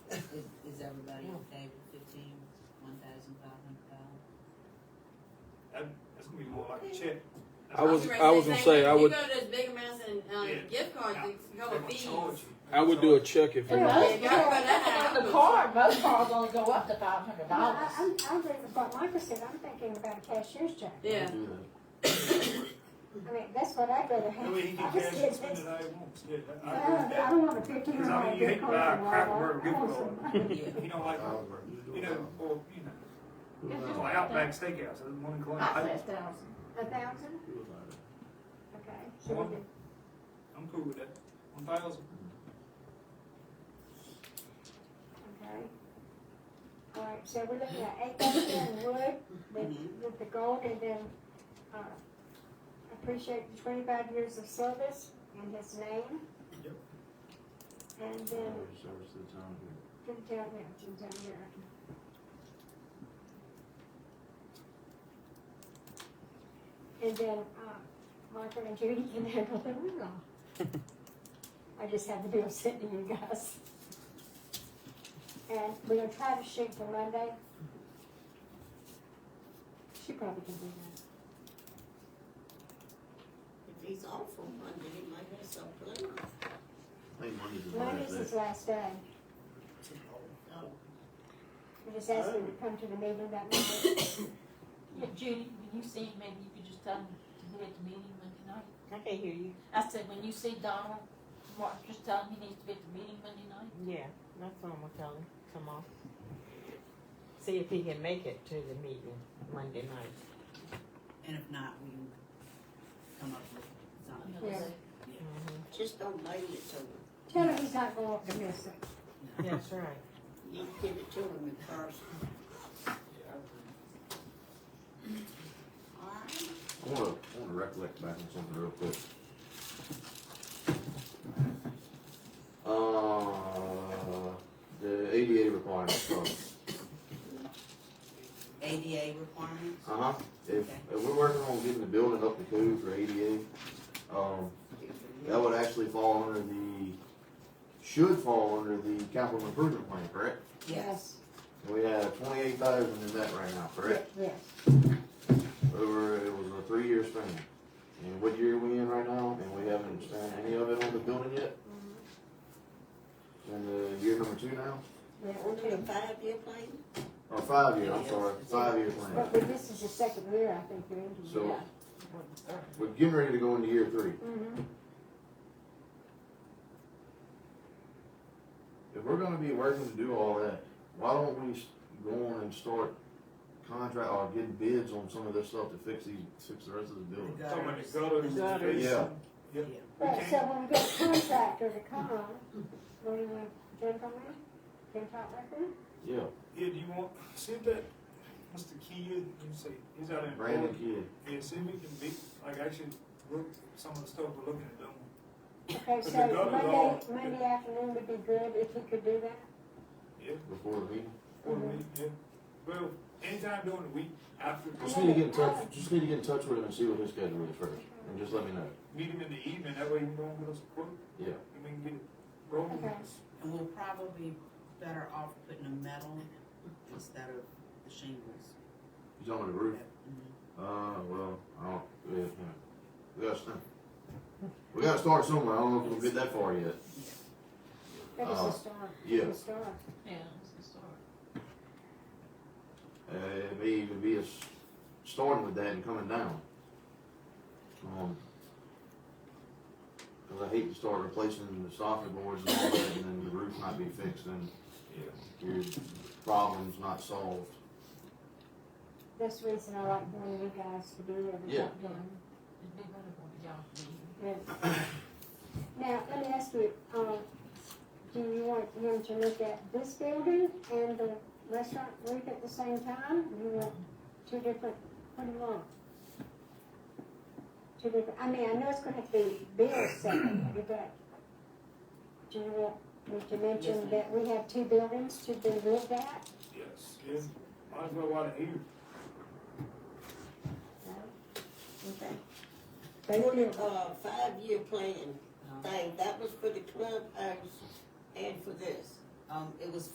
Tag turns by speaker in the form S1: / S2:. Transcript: S1: everybody okay with fifteen, one thousand five hundred dollars?
S2: That, Um, that's gonna be more like a check. That's
S3: I
S2: not-
S3: was-
S2: they're
S3: I was gonna say, I would-
S4: You go to those big amounts and um,
S2: Yeah.
S4: gift cards, they go
S2: gonna
S4: with fees.
S2: charge you.
S3: I would do a check if it
S5: Yeah,
S3: was.
S4: Yeah,
S5: that's-
S4: you gotta put that
S5: The
S4: out.
S5: car, most cars only go up to five hundred
S6: No, I-
S5: dollars.
S6: I'm, I'm thinking what Michael said, I'm thinking about a cashier's check.
S4: Yeah.
S6: I mean, that's what I'd rather
S2: That
S6: have.
S2: way he
S6: I
S2: can
S6: just
S2: cash
S6: get
S2: it, spend
S6: this-
S2: it how he wants. Yeah, that-
S6: I
S2: I agree with
S6: don't, I
S2: that.
S6: don't want a fifteen
S2: Because I mean,
S6: hundred
S2: you hate
S6: gift
S2: to
S6: card.
S2: buy a
S6: from
S2: cracker
S6: Walmart.
S2: barrel gift
S6: I
S2: card.
S6: want some-
S2: He don't like, you know, or, you know, it's like Outback Steakhouse, that's one in Columbia.
S5: I
S2: I-
S5: said thousand.
S6: A thousand? Okay. So we
S2: One.
S6: did-
S2: I'm cool with that. One thousand.
S6: Okay. All right, so we're looking at eight thousand wood
S2: Mm-hmm.
S6: with, with the gold and then, uh, appreciate the twenty-five years of service and his name.
S2: Yep.
S6: And then Jim Taylor, Jim Taylor. And then, uh, Michael and Judy can handle the room. I just have the bill sent to you guys. And we're gonna try to shoot for Monday. She probably can do that.
S7: If he's awful Monday, he might have some plans.
S6: Monday's his last day.
S7: Oh,
S6: We just asked him to come to the meeting that Monday.
S8: Yeah, Judy, when you see, maybe you could just tell him to be at the meeting Monday night.
S7: I can hear you.
S8: I said, when you see Donald, Mark, just tell him he needs to be at the meeting Monday night.
S9: Yeah, that's what I'm gonna tell him tomorrow. See if he can make it to the meeting Monday night.
S1: And if not, we can come up with something.
S8: You know,
S6: Yeah.
S8: say,
S9: hmm
S7: Just don't lay it to him.
S6: Tell her he's not going to miss it.
S9: That's right.
S7: You give it to him in person. Alright.
S10: I wanna, I wanna recollect back on something real quick. Uh, the ADA requirements, sorry.
S1: ADA requirements?
S10: uh-huh, if, if we're working on getting the building up to code for ADA, um, that would actually fall under the, should fall under the capital improvement plan, correct?
S1: Yes.
S10: And We have twenty-eight thousand in that right now, correct?
S6: Yes.
S10: Over, it was a three-year span, and what year are we in right now, and we haven't spent any of it on the building yet? And the year number two now?
S6: Yeah,
S7: We'll do a five-year plan.
S10: Or five year, I'm sorry, five year plan.
S6: But but this is the second year, I think, you're into it.
S10: So, we're getting ready to go into year three.
S2: Mm-hmm.
S6: Mhm.
S10: If we're gonna be working to do all that, why don't we s- go on and start contract, or getting bids on some of this stuff to fix these, fix the rest of the building?
S2: Talking about the gutters.
S9: The gutters.
S10: Yeah.
S2: Yep. We
S6: Right, so
S2: can.
S6: when we get a contractor to come on, what do you want, gentlemen, can talk like that?
S10: Yeah,
S2: Yeah, do you want, see if that, Mr. Key, you say, he's out in.
S10: Brandon Kidd,
S2: Yeah, see if we can be, like, actually, look, some of the stuff we're looking at doing.
S6: Okay,
S2: If
S6: so
S2: they've got it all,
S6: Monday,
S2: yeah.
S6: Monday afternoon would be good if you could do that.
S2: Yeah,
S10: before the meeting.
S2: for the week, yeah. Well, anytime during the week, after,
S10: Just need to get in touch, just need to get in touch with him and see what his schedule is first, and just let me know.
S2: meet him in the evening, that way he can go and get us a quote,
S10: Yeah,
S2: and we can get it rolling.
S6: Okay.
S1: And we're probably better off putting a metal instead of the shingles.
S10: he's on the roof.
S1: Mhm.
S10: Uh, well, I don't, yeah, you know, we gotta start. We gotta start somewhere, I don't know if we'll get that far yet.
S6: That is
S10: Uh,
S6: a start.
S10: yeah.
S6: A start.
S8: Yeah, it's a start.
S10: Uh, it may even be us starting with that and coming down. Um, cause I hate to start replacing the soffit boards and all that, and then the roof not be fixed and
S2: Yeah.
S10: your problem's not solved.
S6: That's the reason I like one of you guys to do it.
S10: Yeah.
S8: It'd be better for y'all to be here.
S6: Yeah. Now, let me ask you, um, do you want him to look at this building and the restaurant roof at the same time? You want two different, what do you want? Two different, I mean, I know it's gonna have to be billed separately, but do you want me to mention
S1: Yes, ma'am.
S6: that we have two buildings to be looked at?
S2: Yes, yeah, might as well while they're here.
S6: Okay.
S7: On
S6: Thank you.
S7: the, uh, five-year
S1: Uh-huh.
S7: plan thing, that was for the clubhouse and for this.
S1: Um, it was